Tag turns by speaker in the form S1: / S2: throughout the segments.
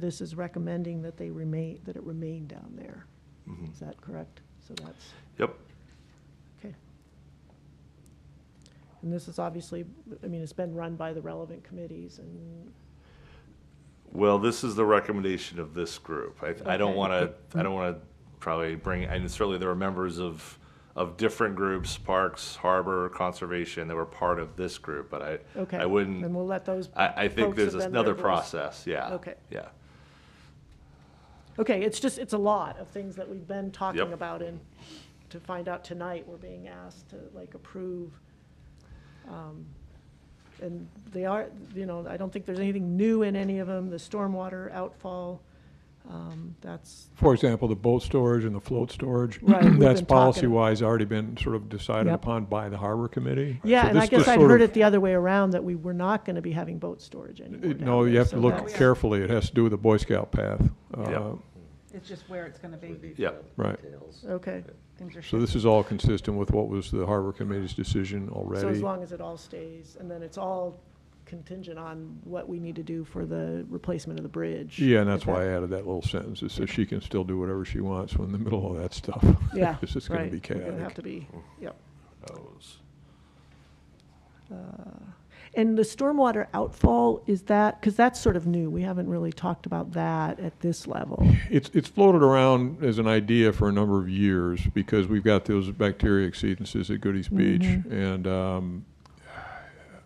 S1: This is recommending that they remain, that it remain down there. Is that correct? So that's,
S2: Mm-hmm. Yep.
S1: okay. And this is obviously, I mean, it's been run by the relevant committees and,
S2: Well, this is the recommendation of this group. I, I don't
S1: Okay.
S2: want to, I don't want to probably bring, and certainly there were members of, of different groups, parks, harbor, conservation, that were part of this group, but I,
S1: okay.
S2: I wouldn't-
S1: And we'll let those.
S2: I, I think
S1: folks
S2: there's
S1: have been
S2: another
S1: members.
S2: process, yeah.
S1: Okay.
S2: Yeah.
S1: Okay, it's just, it's a lot of things that we've been talking
S2: Yep.
S1: about and to find out tonight, we're being asked to like approve. um, And they are, you know, I don't think there's anything new in any of them, the stormwater outfall, um, that's,
S3: For example, the boat storage and the float storage.
S1: Right, we've
S3: That's
S1: been talking-
S3: policy-wise already been sort of decided
S1: Yep.
S3: upon by the harbor committee.
S1: yeah,
S3: So
S1: and I
S3: this
S1: guess
S3: just
S1: I'd
S3: sort
S1: heard
S3: of-
S1: it the other way around, that we were not gonna be having boat storage anymore. down
S3: Uh, No, you
S1: there,
S3: have to
S1: so
S3: look
S1: that's-
S3: carefully. It has to do with the Boy Scout path. Uh,
S2: Yep.
S4: It's just where it's gonna be.
S2: Yeah.
S3: Right.
S1: Okay,
S4: Things are
S3: So this is all consistent with what was the harbor committee's decision already.
S1: so as long as it all stays, and then it's all contingent on what we need to do for the replacement of the bridge.
S3: Yeah, and that's
S1: If that-
S3: why I added that little sentence, is so she can still do whatever she wants when in the middle of that stuff.
S1: Yeah.
S3: Because it's going to
S1: right.
S3: be
S1: We're gonna have
S3: chaotic. Oh.
S1: to be, yep.
S2: Those.
S1: And the stormwater outfall, is that, because that's sort of new, we haven't really talked about that at this level.
S3: It's, it's floated around as an idea for a number of years because we've got those bacteria exceedances at Goodies Beach. And um,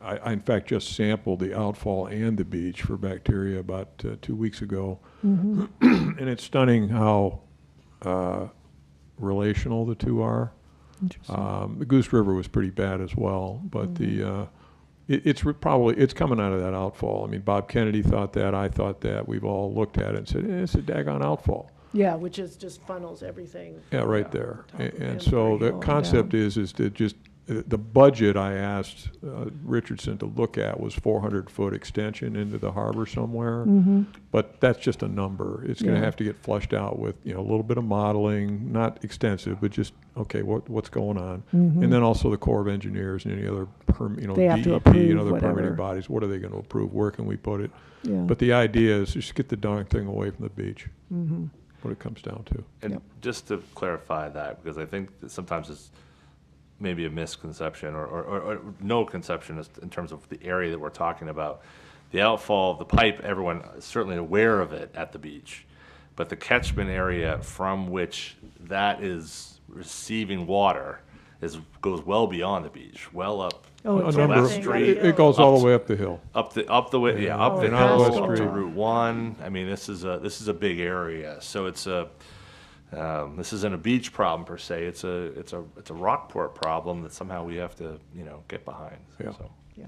S3: I, I in fact just sampled the outfall and the beach for bacteria about uh, two weeks ago. And it's stunning how uh, relational the two are. Um, the Goose River was pretty bad as well, but the uh, it, it's re- probably it's coming out of that outfall. I mean, Bob Kennedy thought that, I thought that. We've all looked at it and said, eh, it's a daggone outfall.
S1: Yeah, which is just funnels everything.
S3: Yeah, right there.
S1: Top
S3: And,
S1: of
S3: and
S1: the hill
S3: so the
S1: going
S3: concept
S1: down.
S3: is is to just uh, the budget I asked uh, Richardson to look at was 400 foot extension into the harbor somewhere, but that's just a number. It's going
S1: Mm-hmm.
S3: to
S1: Yeah.
S3: have to get flushed out with you know a little bit of modeling, not extensive, but just okay, what what's going on, and then also the Corps of Engineers and any other perm, you know
S1: Mm-hmm. They have to
S3: DEP and
S1: approve
S3: other
S1: whatever.
S3: permitting bodies. What are they going to approve? Where can we put it?
S1: Yeah.
S3: But the idea is just get the darn thing away from the beach.
S1: Mm-hmm.
S3: What it comes down to.
S2: And
S1: Yep.
S2: just to clarify that, because I think that sometimes it's maybe a misconception or, or, or or no conception as- in terms of the area that we're talking about. The outfall of the pipe, everyone is certainly aware of it at the beach, but the catchment area from which that is receiving water is, goes well beyond the beach, well up.
S1: Oh,
S3: A
S1: it's
S2: Well,
S3: number
S2: that's
S3: of-
S1: everything,
S2: straight.
S1: right?
S3: It it goes all
S2: Up-
S3: the way up the hill.
S2: Up the, up the way, yeah, up the
S3: And out West
S2: hill, up to
S3: Street.
S2: Route One. I mean, this is a, this is a big area, so it's a, um, this isn't a beach problem per se, it's a, it's a, it's a Rockport problem that somehow we have to, you know, get behind,
S3: Yeah.
S2: so.
S1: Yeah,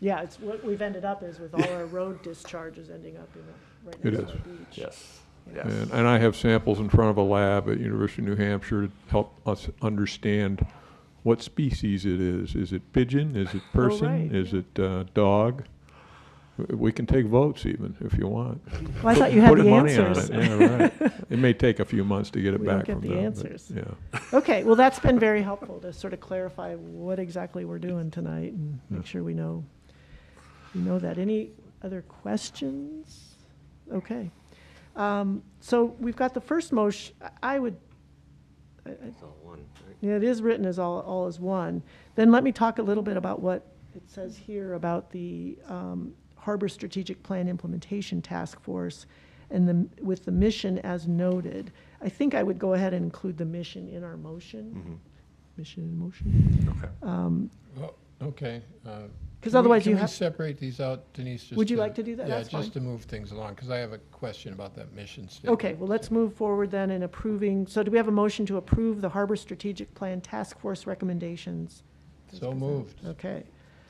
S1: yeah, it's what we've ended up is with all our road discharges ending up in the, right
S3: It
S1: next to
S3: is.
S1: the beach.
S2: Yes, yes.
S3: And, and I have samples in front of a lab at University of New Hampshire to help us understand what species it is. Is it pigeon? Is it person?
S1: Oh, right,
S3: Is it uh, dog? W- We can take votes even, if you want.
S1: Well, I thought you had
S3: Put
S1: the
S3: money on
S1: answers.
S3: it, yeah, right. It may take a few months to get it
S1: We don't
S3: back
S1: get
S3: from
S1: the
S3: them. but,
S1: answers.
S3: Yeah.
S1: Okay, well, that's been very helpful to sort of clarify what exactly we're doing tonight and make sure we know, we know that. Any other questions? Okay. Um, So we've got the first motion, I would, I- I- yeah, it is written as all, all as one. Then let me talk a little bit about what it says here about the um, Harbor Strategic Plan Implementation Task Force and the, with the mission as noted. I think I would go ahead and include the mission in our motion. Mission in motion.
S5: Well, Oh, Okay. uh,
S1: 'Cause
S5: can we-
S1: otherwise you
S5: Can
S1: have-
S5: we separate these out, Denise? just
S1: Would you like to do that?
S5: Yeah,
S1: That's fine.
S5: just to move things along, because I have a question about that mission statement.
S1: Okay, well, let's move forward then in approving, so do we have a motion to approve the Harbor Strategic Plan Task Force recommendations?
S5: So moved.
S1: Okay,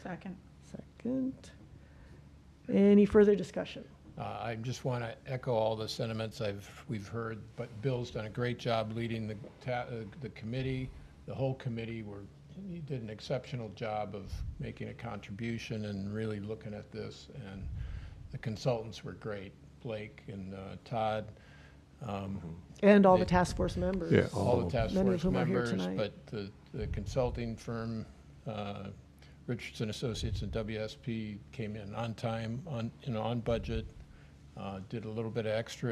S4: Second.
S1: second. Any further discussion?
S5: Uh, I just want to echo all the sentiments I've, we've heard, but Bill's done a great job leading the, ta- uh, the committee, the whole committee. We're, he did an exceptional job of making a contribution and really looking at this. And the consultants were great, Blake and uh, Todd,
S1: And all the task force members.
S3: Yeah,
S5: all the task
S1: Many of
S5: force
S1: whom are here
S5: members.
S1: tonight.
S5: But the, the consulting firm, uh, Richardson Associates and WSP came in on time, on, you know, on budget. uh, did a little bit of extra